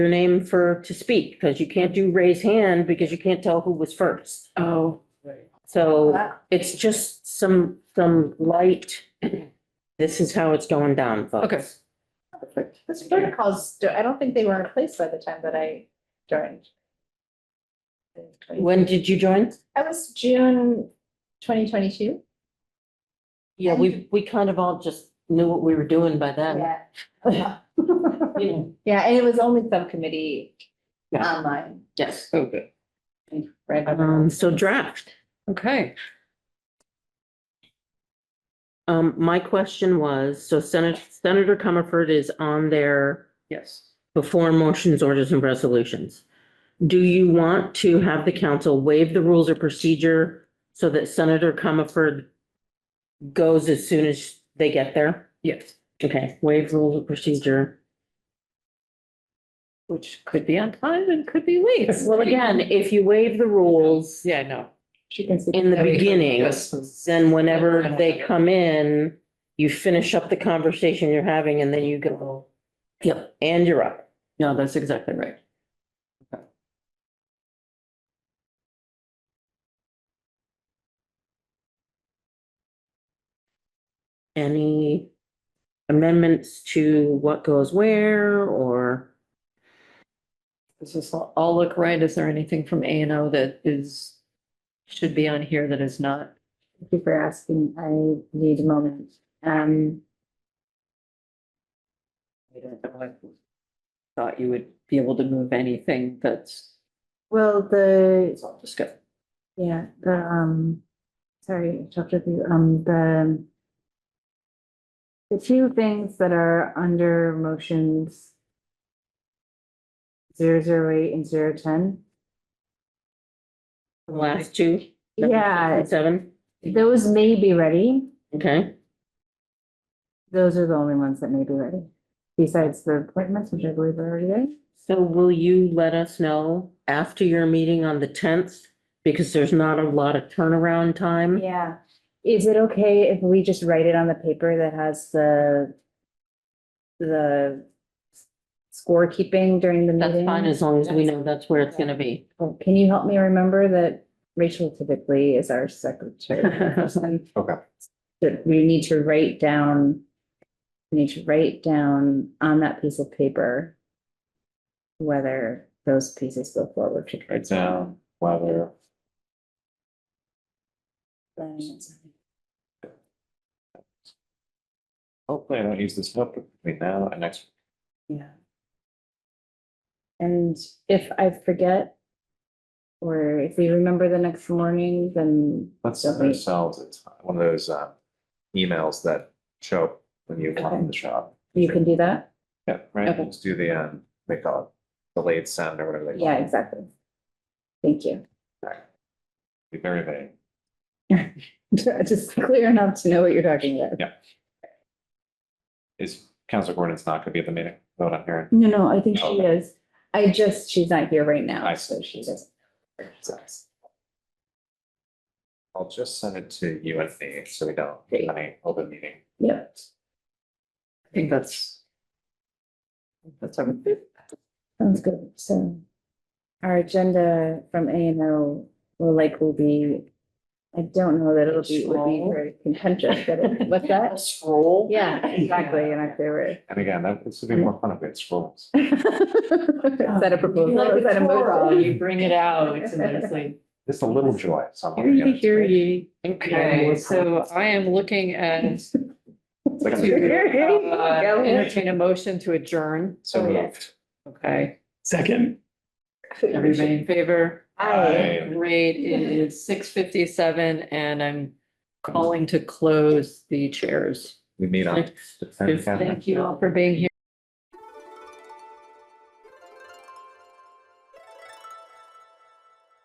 your name for, to speak, because you can't do raise hand because you can't tell who was first. Oh. So it's just some, some light. This is how it's going down, folks. Okay. Perfect. Those protocols, do- I don't think they were in place by the time that I joined. When did you join? That was June twenty twenty-two. Yeah, we, we kind of all just knew what we were doing by then. Yeah. Yeah, and it was only subcommittee Yeah. online. Yes. Okay. Right. Um, so draft. Okay. Um, my question was, so Senator, Senator Comerford is on there Yes. before motions, orders and resolutions. Do you want to have the council waive the rules of procedure so that Senator Comerford goes as soon as they get there? Yes. Okay, waive rules of procedure. Which could be on time and could be late. Well, again, if you waive the rules Yeah, no. She can see. in the beginning, Yes. then whenever they come in, you finish up the conversation you're having and then you go, yep, and you're up. No, that's exactly right. any amendments to what goes where or, Does this all all look right? Is there anything from A and O that is, should be on here that is not? Thank you for asking. I need a moment. Um, I don't know. I Thought you would be able to move anything that's, well, the, it's all just good. yeah, the, um, sorry, talked with you, um, the the two things that are under motions zero zero eight and zero ten. the last two? number Yeah, six and Seven, those may be ready. okay, Those are the only ones that may be ready. Besides the appointments, which I believe are already there. so will you let us know after your meeting on the tenth? Because there's not a lot of turnaround time. Yeah, is it okay if we just write it on the paper that has the, the scorekeeping during the That's meeting? fine, as long as we know that's where it's gonna be. Oh, Can you help me remember that Rachel typically is our secretary? Okay. That we need to write down, we need to write down on that piece of paper whether those pieces go forward to. Write down whether hopefully I don't use this hook between now and next. Yeah. And if I forget, or if we remember the next morning, then Let's Don't send we- ourselves a ti- one of those uh emails that show up when you walk in the shop. you can do that? Yeah, right. Okay. Let's do the um, they call it delayed sound or whatever they call Yeah, it. exactly. Thank you. Be very vague. Just clear enough to know what you're talking about. Yeah. Is Council Gordon's not gonna be at the meeting? Vote on here. No, no, I think she Okay. is. I just, she's not here right now. I So see. she doesn't. I'll just send it to you and me so we don't Great. have any open meeting. Yep. I think that's. That's everything. Sounds good, so. Our agenda from A and O will likely be, I don't know that it'll be, would be Scroll. very contentious, but it- what's that? Scroll. Yeah, exactly, in October. And again, that this would Mm. be more fun if it's rules. Is that a proposal? Is that a motion? You bring it out. It's amazing. Just a little joy. somewhere, Hear you know, ye, it's hear great. ye. Okay, so I am looking at It's like a- uh, entertain a motion to adjourn. So moved. Okay, Second. everybody in favor? Aye. Great, it is six fifty-seven and I'm calling to close the chairs. We meet on. Thank the 10th, Catherine. Thank you all for being here.